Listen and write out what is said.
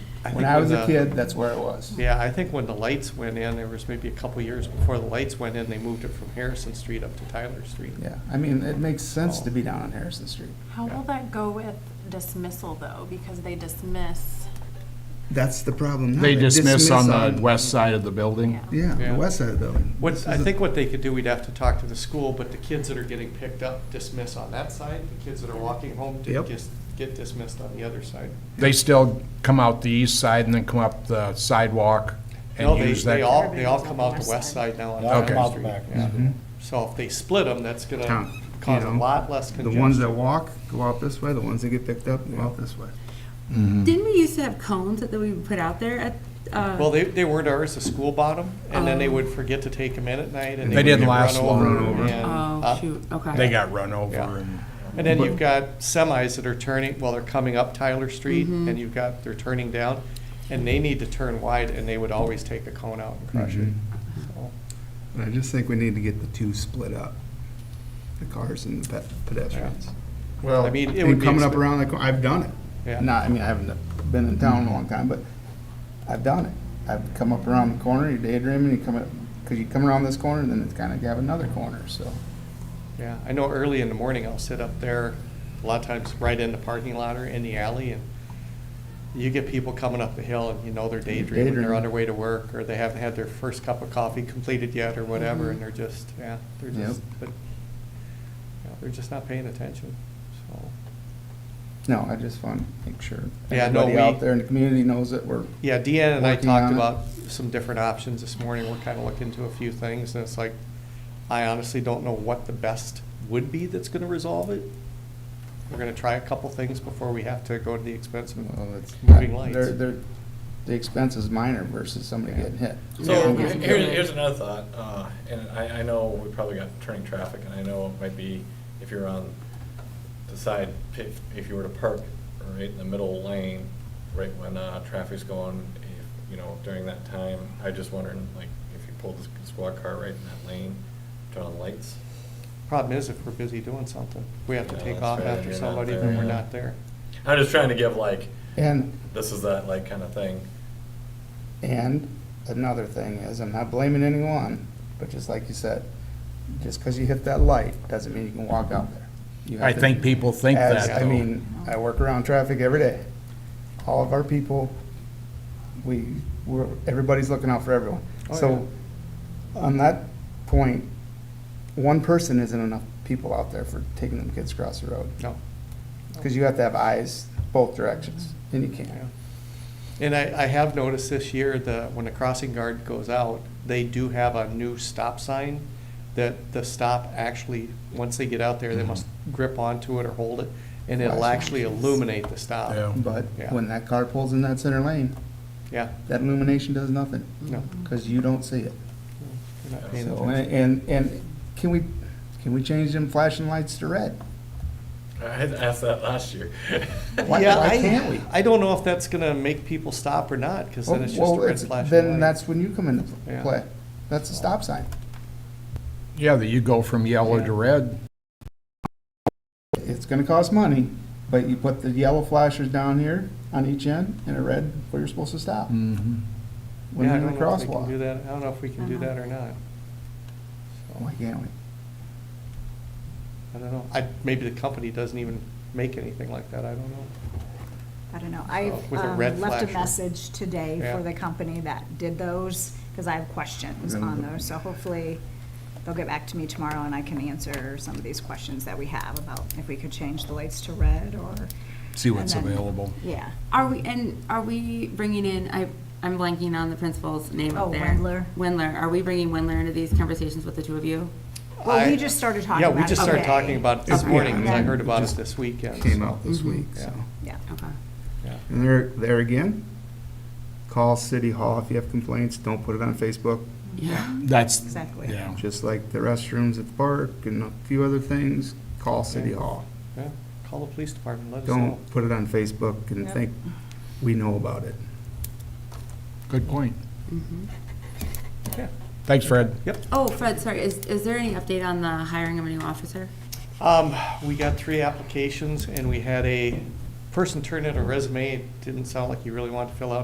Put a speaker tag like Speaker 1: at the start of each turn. Speaker 1: I
Speaker 2: When
Speaker 1: think
Speaker 2: I was
Speaker 1: the-
Speaker 2: a kid, that's where it was.
Speaker 1: Yeah, I think when the lights went in, there was maybe a couple years before the lights went in, they moved it from Harrison Street up to Tyler Street.
Speaker 2: Yeah, I mean, it makes sense
Speaker 1: Oh.
Speaker 2: to be down on Harrison Street.
Speaker 3: How will that go with dismissal, though? Because they dismiss,
Speaker 4: That's the problem now.
Speaker 5: They dismiss on the
Speaker 4: on-
Speaker 5: west side of the building.
Speaker 3: yeah.
Speaker 4: Yeah,
Speaker 1: Yeah.
Speaker 4: the west side of the building. This
Speaker 1: What,
Speaker 4: is
Speaker 1: I
Speaker 4: a-
Speaker 1: think what they could do, we'd have to talk to the school, but the kids that are getting picked up dismiss on that side, the kids that are walking home to
Speaker 4: Yep.
Speaker 1: just get dismissed on the other side.
Speaker 5: They still come out the east side and then come up the sidewalk
Speaker 1: No,
Speaker 5: and
Speaker 1: they,
Speaker 5: use that.
Speaker 1: they all, they all come out the west side now on
Speaker 6: They all
Speaker 5: come
Speaker 1: Tyler
Speaker 5: out
Speaker 6: the
Speaker 1: Street.
Speaker 6: back.
Speaker 1: yeah. So if they split them, that's
Speaker 4: Mm-hmm. Town,
Speaker 1: gonna
Speaker 4: you
Speaker 1: cause a
Speaker 4: know,
Speaker 1: lot less
Speaker 4: The
Speaker 1: uh, congestion.
Speaker 4: ones that walk go out this way, the ones that get picked up go out this way.
Speaker 7: Didn't we used to have cones that we would put out there at, uh?
Speaker 1: Well, they, they weren't ours, the school bought them, and then they
Speaker 7: Oh.
Speaker 1: would forget to take them in at night, and
Speaker 4: They
Speaker 1: they would get
Speaker 5: didn't last
Speaker 1: run over.
Speaker 4: long. Run over.
Speaker 1: and,
Speaker 7: Oh,
Speaker 1: uh,
Speaker 7: shoot, okay.
Speaker 5: They got run over
Speaker 1: Yeah.
Speaker 5: and.
Speaker 1: And then
Speaker 4: But-
Speaker 1: you've got semis that are turning, well, they're coming up Tyler Street, and you've got, they're turning down, and they need to turn wide, and they would always take a cone out and crush it. So,
Speaker 4: But I just think we need to get the two split up, the cars and the pe- pedestrians.
Speaker 1: I mean, it would
Speaker 4: And
Speaker 1: be.
Speaker 4: coming up
Speaker 1: expen-
Speaker 4: around the, cor- I've done it.
Speaker 1: Yeah.
Speaker 2: Not, I mean, I haven't been in town in a long time, but I've done it. I've come up around the corner, you're daydreaming, you come up, because you come around this corner, then it's kind of, you have another corner, so.
Speaker 1: Yeah, I know early in the morning, I'll sit up there, a lot of times right in the parking lot or in the alley, and you get people coming up the hill, and you know they're daydreaming, they're on
Speaker 2: Daydreaming.
Speaker 1: their way to work, or they haven't had their first cup of coffee completed yet, or whatever, and they're just, yeah, they're
Speaker 2: Yep.
Speaker 1: just, but, yeah, they're just not paying attention, so.
Speaker 2: No, I just want to make sure
Speaker 1: Yeah, no,
Speaker 2: everybody
Speaker 1: we-
Speaker 2: out there in the community knows that we're,
Speaker 1: Yeah, Deanna and I
Speaker 2: Working
Speaker 1: talked
Speaker 2: on it.
Speaker 1: about some different options this morning, we're kinda looking to a few things, and it's like, I honestly don't know what the best would be that's gonna resolve it. We're gonna try a couple things before we have to go to the expense of
Speaker 2: well, it's.
Speaker 1: Moving lights.
Speaker 2: They're, they're, the expense is minor versus somebody getting hit.
Speaker 6: So here's, here's another thought, uh, and I, I know we probably got turning traffic, and I know it might be if you're on the side, if, if you were to park right in the middle lane, right when, uh, traffic's going, if, you know, during that time, I just wondering, like, if you pulled the squad car right in that lane, turn on the lights.
Speaker 1: Problem is, if we're busy doing something, we have to
Speaker 6: Yeah,
Speaker 1: take
Speaker 6: that's
Speaker 1: off
Speaker 6: right,
Speaker 1: after
Speaker 6: you're not
Speaker 1: somebody,
Speaker 6: there,
Speaker 1: then we're
Speaker 6: yeah.
Speaker 1: not there.
Speaker 6: I'm just trying to give like,
Speaker 2: And
Speaker 6: this is that, like, kind of thing.
Speaker 2: And another thing is, I'm not blaming anyone, but just like you said, just because you hit that light doesn't mean you can walk out there. You have
Speaker 5: I
Speaker 2: to-
Speaker 5: think people think
Speaker 2: As-
Speaker 5: that
Speaker 2: I
Speaker 5: though.
Speaker 2: mean, I work around traffic every day. All of our people, we, we're, everybody's looking out for everyone.
Speaker 1: Oh,
Speaker 2: So on that point, one person isn't enough people out there for taking them kids across the road.
Speaker 1: No.
Speaker 2: Because you have to have eyes both directions, and you can't.
Speaker 1: Yeah. And I, I have noticed this year that when the crossing guard goes out, they do have a new stop sign that the stop actually, once they get out there,
Speaker 2: Mm-hmm.
Speaker 1: they must grip onto it or hold it, and it'll
Speaker 2: Flashlight.
Speaker 1: actually illuminate the stop.
Speaker 5: Yeah.
Speaker 2: But
Speaker 1: Yeah.
Speaker 2: when that car pulls in that center lane,
Speaker 1: Yeah,
Speaker 2: that illumination does nothing.
Speaker 1: no,
Speaker 2: because you don't see it.
Speaker 1: you're not paying
Speaker 2: So,
Speaker 1: attention.
Speaker 2: and, and can we, can we change them flashing lights to red?
Speaker 6: I had asked that last year.
Speaker 2: Why-
Speaker 1: Yeah,
Speaker 2: why
Speaker 1: I-
Speaker 2: can't we? Oh,
Speaker 1: I don't know if that's gonna make people stop or not, because then it's just a
Speaker 2: Well,
Speaker 1: red
Speaker 2: it's-
Speaker 1: flashing light.
Speaker 2: Then that's when you come into pl-
Speaker 1: Yeah.
Speaker 2: play. That's a stop sign.
Speaker 5: Yeah, that you go from yellow
Speaker 1: Yeah.
Speaker 5: to red.
Speaker 2: It's gonna cost money, but you put the yellow flashers down here on each end and a red where you're supposed to stop
Speaker 4: Mm-hmm.
Speaker 2: when
Speaker 1: Yeah, I
Speaker 2: you're
Speaker 1: don't
Speaker 2: in the
Speaker 1: know if we can do
Speaker 2: crosswalk.
Speaker 1: that. I don't know if we can do that or not.
Speaker 2: Why Oh, can't we?
Speaker 1: I don't know. I, maybe the company doesn't even make anything like that. I don't know.
Speaker 8: I don't know,
Speaker 1: Uh, with
Speaker 8: I've
Speaker 1: a
Speaker 8: um,
Speaker 1: red
Speaker 8: left a
Speaker 1: flasher.
Speaker 8: message today
Speaker 1: Yeah.
Speaker 8: for the company that did those, because I have questions
Speaker 2: Then
Speaker 8: on
Speaker 2: we'll-
Speaker 8: those, so hopefully they'll get back to me tomorrow and I can answer some of these questions that we have about if we could change the lights to red or,
Speaker 5: See what's
Speaker 8: And then-
Speaker 5: available.
Speaker 8: yeah.
Speaker 7: Are we, and are we bringing in, I, I'm blanking on the principal's name
Speaker 8: Oh,
Speaker 7: up there.
Speaker 8: Wendler.
Speaker 7: Wendler, are we bringing Wendler into these conversations with the two of you?
Speaker 8: Well,
Speaker 1: I-
Speaker 8: we just started talking
Speaker 1: Yeah,
Speaker 8: about it
Speaker 1: we just started
Speaker 8: today.
Speaker 1: talking about it this
Speaker 8: Okay.
Speaker 1: morning,
Speaker 8: Yeah,
Speaker 1: because I
Speaker 8: and
Speaker 1: heard
Speaker 8: then-
Speaker 1: about it
Speaker 4: just
Speaker 1: this weekend.
Speaker 4: Came
Speaker 1: so,
Speaker 4: out
Speaker 2: Mm-hmm.
Speaker 4: this week,
Speaker 1: yeah.
Speaker 4: so.
Speaker 8: Yeah.
Speaker 7: Okay.
Speaker 1: yeah.
Speaker 4: And there, there again, call City Hall if you have complaints, don't put it on Facebook,
Speaker 7: Yeah.
Speaker 5: That's,
Speaker 8: Exactly.
Speaker 5: yeah.
Speaker 4: just like the restrooms at the park and a few other things, call City Hall.
Speaker 1: Yeah. Call the police department, let us know.
Speaker 4: Don't put it on Facebook and
Speaker 8: Yep.
Speaker 4: think we know about it.
Speaker 5: Good point.
Speaker 1: Yeah.
Speaker 5: Thanks, Fred.
Speaker 7: Mm-hmm. Oh, Fred, sorry, is, is there any update on the hiring of a new officer?
Speaker 1: Um, we got three applications, and we had a person turn in a resume. It didn't sound like he really wanted to fill out